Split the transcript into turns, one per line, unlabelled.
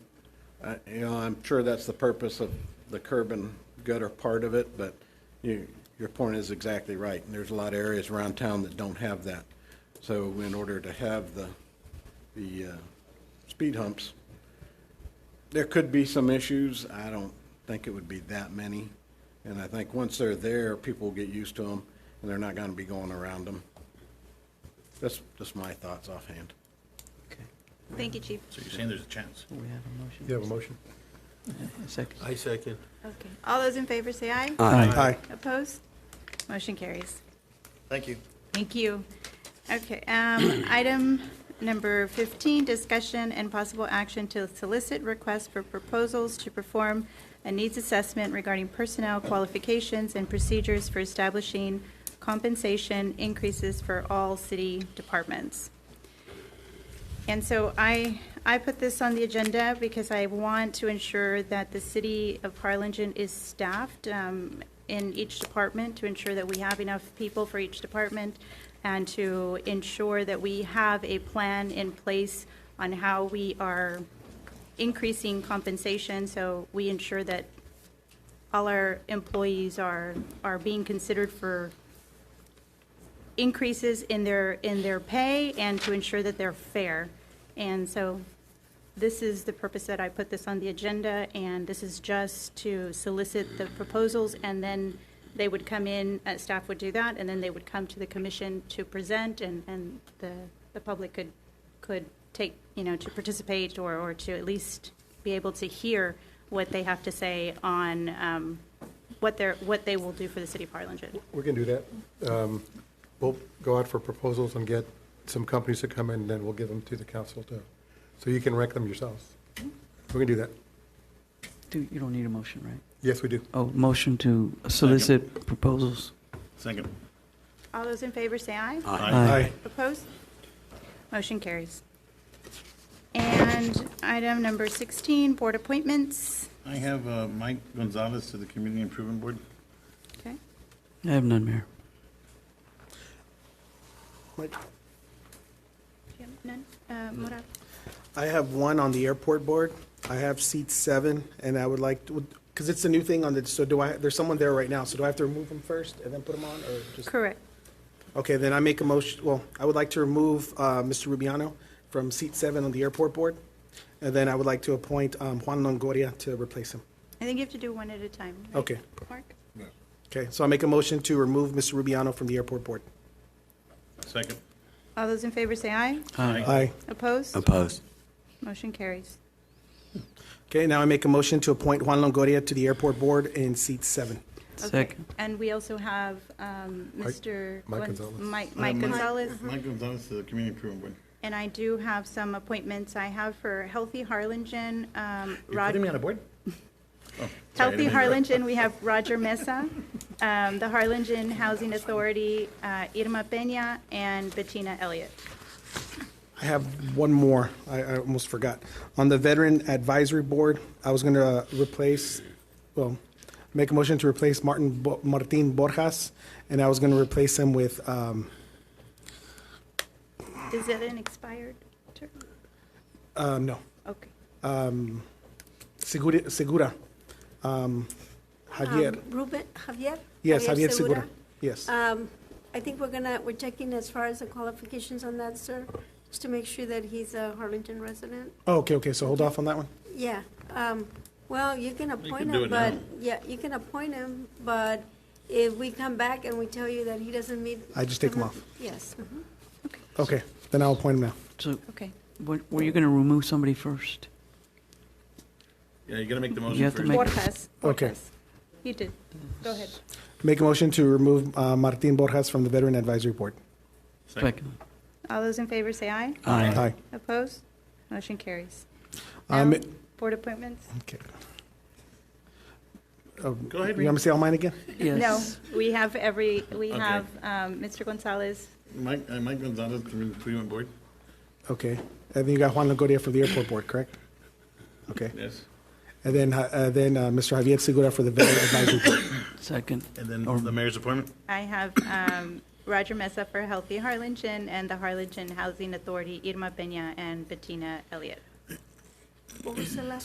I- Uh, you know, I'm sure that's the purpose of the curb and gutter part of it, but you, your point is exactly right. And there's a lot of areas around town that don't have that. So in order to have the, the uh, speed humps, there could be some issues. I don't think it would be that many. And I think once they're there, people will get used to them, and they're not gonna be going around them. That's, that's my thoughts offhand.
Okay.
Thank you, Chief.
So you're saying there's a chance?
We have a motion.
You have a motion?
A second.
I second.
Okay. All those in favor say aye.
Aye.
Opposed? Motion carries.
Thank you.
Thank you. Okay, um, item number 15, discussion and possible action to solicit requests for proposals to perform a needs assessment regarding personnel qualifications and procedures for establishing compensation increases for all city departments. And so I, I put this on the agenda because I want to ensure that the city of Harlingen is staffed um, in each department to ensure that we have enough people for each department and to ensure that we have a plan in place on how we are increasing compensation. So we ensure that all our employees are, are being considered for increases in their, in their pay and to ensure that they're fair. And so this is the purpose that I put this on the agenda, and this is just to solicit the proposals, and then they would come in, uh, staff would do that, and then they would come to the commission to present, and, and the, the public could, could take, you know, to participate or, or to at least be able to hear what they have to say on um, what they're, what they will do for the city of Harlingen.
We can do that. Um, We'll go out for proposals and get some companies to come in, and then we'll give them to the council too. So you can rank them yourselves. We can do that.
Do, you don't need a motion, right?
Yes, we do.
Oh, motion to solicit proposals.
Second.
All those in favor say aye. Opposed? Motion carries. And item number 16, board appointments.
I have uh, Mike Gonzalez to the Community Improvement Board.
Okay.
I have none, Mayor.
Mike,
Do you have None? Uh, Murat?
I have one on the airport board. I have seat seven, and I would like, because it's a new thing on the, so do I, there's someone there right now, so do I have to remove them first and then put them on, or just?
Correct.
Okay, then I make a motion, well, I would like to remove uh, Mr. Rubiano from seat seven on the airport board, and then I would like to appoint um, Juan Longoria to replace him.
I think you have to do one at a time. right,
Okay,
Mark?
okay, so I make a motion to remove Mr. Rubiano from the airport board.
Second.
All those in favor say aye.
Aye.
Opposed?
Opposed.
Motion carries.
Okay, now I make a motion to appoint Juan Longoria to the airport board in seat seven.
Okay.
Second.
And we also have um,
Mike-
Mr.
Mike
Gonz-
Gonzalez.
Mike
Uh,
Mike Gonzalez.
Mike Gonzalez to the Community Improvement Board.
And I do have some appointments I have for Healthy Harlingen. um,
You're
Rod-
putting me on a board? Oh, sorry, I
Healthy
didn't mean to-
Harlingen, we have Roger Mesa, um, the Harlingen Housing Authority, uh, Irma Peña, and Bettina Elliott.
I have one more. I, I almost forgot. On the Veteran Advisory Board, I was going to replace, well, make a motion to replace Martin, Bo- Martin Borjas, and I was going to replace him with, um,
Is that an expired term?
uh, no,
Okay.
um, Segura, Segura. Um, Javier.
Um, Ruben, Javier?
Yes, Javier Segura. Uh, Yes.
Um, I think we're gonna, we're checking as far as the qualifications on that, sir, just to make sure that he's a Harlingen resident.
Oh, Okay, okay, so hold off on that one.
Yeah, um, well, you can appoint
do
him,
it
but,
now.
yeah, you can appoint him, but if we come back and we tell you that he doesn't meet.
I just take him off.
Yes. mhm.
Okay, then I'll appoint him now.
So,
Okay.
what- were you going to remove somebody first?
Yeah, you gotta make the motion first.
have to make-
Borjas.
Okay.
Borjas. You did. Go ahead.
Make a motion to remove uh, Martin Borjas from the Veteran Advisory Board.
Second.
All those in favor say aye.
Aye.
Aye.
Opposed? Motion carries.
I ma-
Now, Board appointments?
Okay. Um,
Go ahead,
You want me to say all mine again?
No,
Yes.
we have every, we
Okay.
have um, Mr. Gonzalez.
Mike, uh, Mike Gonzalez, Community Improvement Board.
Okay. And then you got Juan Longoria for the airport board, correct? Okay.
Yes.
And then, uh, uh, then uh, Mr. Javier Segura for the veteran advisory board.
Second.
And then the mayor's appointment.
I have um, Roger Mesa for Healthy Harlingen and the Harlingen Housing Authority, Irma Peña and Bettina Elliott.
What was the last